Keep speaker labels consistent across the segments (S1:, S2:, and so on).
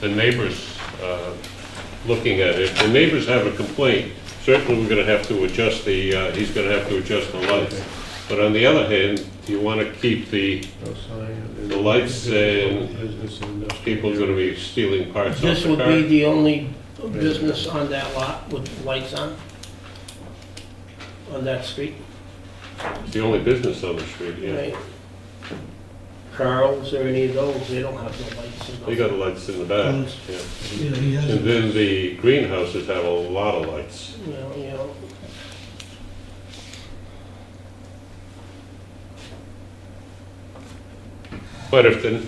S1: the neighbors uh, looking at it. If the neighbors have a complaint, certainly we're gonna have to adjust the, uh, he's gonna have to adjust the lights. But on the other hand, you wanna keep the,
S2: No sign.
S1: The uh, lights and
S2: Business and industrial.
S1: people are gonna be stealing parts off
S3: This
S1: the
S3: would be
S1: car.
S3: the only business on that lot with lights on? On that street,
S1: It's the only business on the street, yeah.
S3: right? Carl's or any of those, they don't have no lights in
S1: They
S3: those.
S1: got lights in the back, yeah.
S4: Yeah, he has.
S1: And then the greenhouses have a lot of lights.
S3: You know, you know,
S1: But if the,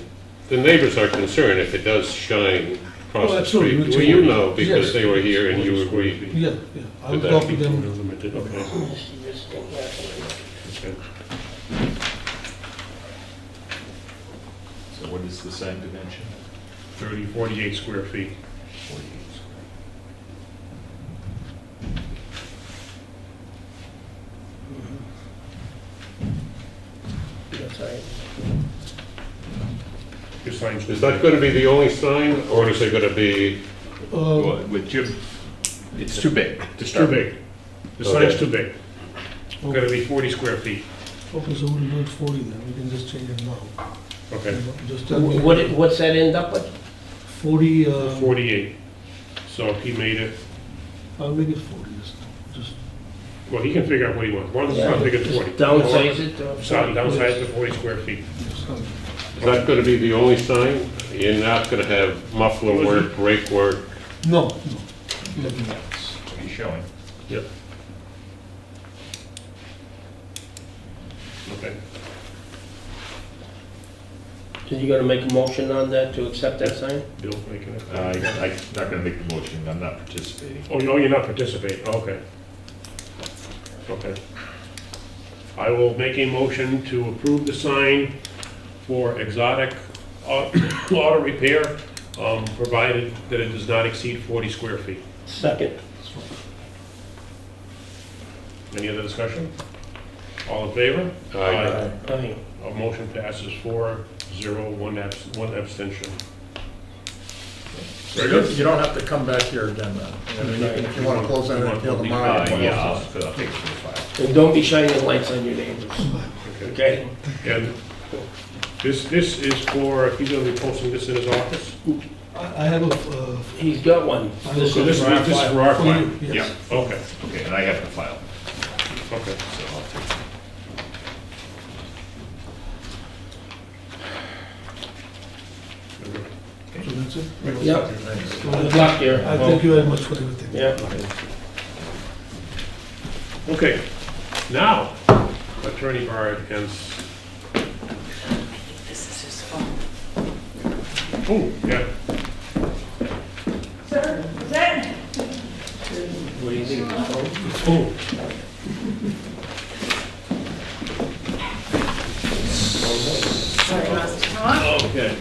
S1: the neighbors are concerned, if it does shine across
S4: Oh,
S1: the
S4: absolutely,
S1: street,
S4: it's
S1: well, you
S4: already-
S1: know, because
S4: yes.
S1: they were here and you agreed.
S4: Yeah, yeah, I
S1: Did that
S4: will talk to
S2: People
S4: them.
S2: are limited, okay.
S3: this, this thing happening.
S2: okay.
S5: So what is the sign dimension?
S2: 30, 48 square feet.
S3: That's all right.
S2: Your signs.
S1: Is that gonna be the only sign, or is it gonna be,
S4: Uh,
S5: Well, With Jim, it's too big. to
S2: It's too
S5: start with.
S2: big. The sign's
S1: Okay.
S2: too big. Gotta be 40 square feet.
S4: Okay, so we'll do it forty then, we can just change it now.
S2: Okay,
S4: Just tell me.
S3: Wh- What, it- what's that end up with?
S4: Forty, uh,
S2: 48. So he made it,
S4: I'll make it forty this time, just,
S2: well, he can figure out what he wants, as long as it's not bigger than 40.
S3: Downsize it to.
S2: So downsize it to 40 square feet.
S4: just, tell me.
S1: is that gonna be the only sign? You're not gonna have muffler work, brake work?
S4: no, no, nothing else.
S5: What are you showing?
S2: Yep. Okay.
S3: So you gonna make a motion on that to accept that sign?
S2: Bill's making it.
S5: Uh, I- I'm not gonna make the motion, I'm not participating.
S2: Oh, no, you're not participating, okay. Okay. I will make a motion to approve the sign for exotic au- auto repair, um, provided that it does not exceed 40 square feet.
S3: Second.
S2: Any other discussion? All in favor?
S1: Aye.
S3: Aye.
S2: A motion passes four, zero, one abs, one abstention.
S6: So you you don't have to come back here again then. I mean, you can- If you want to close that until tomorrow.
S5: Uh,
S6: you
S5: yeah,
S6: can.
S5: I'll I'll take it from the file.
S3: And don't be shining lights on your neighbors,
S2: Okay.
S3: okay?
S2: And this, this is for, he's gonna be posting this in his office?
S4: I, I have a, uh,
S3: He's got one.
S4: I
S3: This
S2: So
S4: will-
S3: is-
S2: this is, this is for our
S4: For you,
S2: client?
S4: yes.
S2: Yeah, okay,
S5: Okay, and I have to file,
S2: okay.
S5: so I'll take it.
S4: so that's it.
S3: Yep.
S6: Thanks.
S4: So,
S3: Good luck here.
S4: I thank you very much for everything.
S3: Yeah.
S2: Okay, now, Attorney Barr has,
S7: This is his phone.
S2: oh, yeah,
S7: Sir, is that?
S3: What do you think?
S2: oh,
S5: Okay,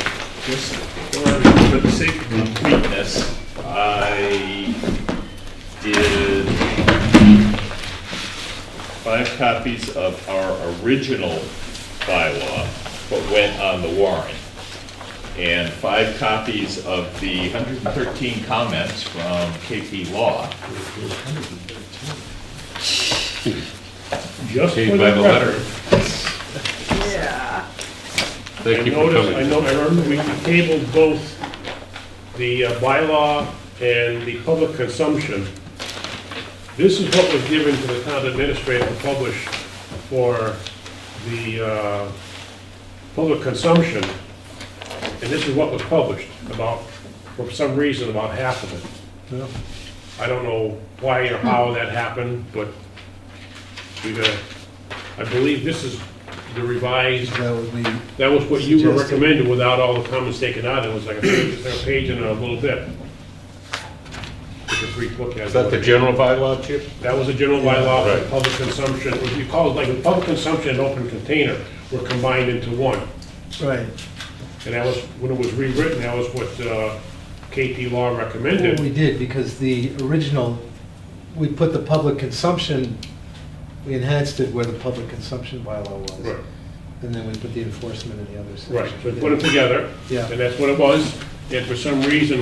S5: just for, for the sake of completeness, I did five copies of our original bylaw, but went on the warrant. And five copies of the 113 comments from KP Law.
S2: just for
S1: Paid
S2: the
S1: by the letter.
S2: record.
S7: Yeah.
S1: Thank you
S2: I
S1: for
S2: noticed, I
S1: coming.
S2: know, I remember we tabled both the uh, bylaw and the public consumption. This is what was given to the town administrator to publish for the uh, public consumption, and this is what was published, about, for some reason, about half of it. I don't know why or how that happened, but we got, I believe this is the revised
S6: That would be,
S2: that was what you were
S6: Suggested.
S2: recommending without all the comments taken out, it was like a page, a page and a little bit. Take a brief look at it.
S1: Is that the general bylaw, Chip?
S2: That was a general bylaw
S1: Right.
S2: for public consumption, what you call it, like, a public consumption and open container were combined into one.
S6: right.
S2: And that was, when it was rewritten, that was what uh, KP Law
S8: Well,
S2: recommended.
S8: We did, because the original, we put the public consumption, we enhanced it where the public consumption bylaw
S2: Right,
S8: was. And then we put the enforcement in the other section.
S2: right, so we put them together,
S8: Yeah.
S2: and that's what it was, and for some reason,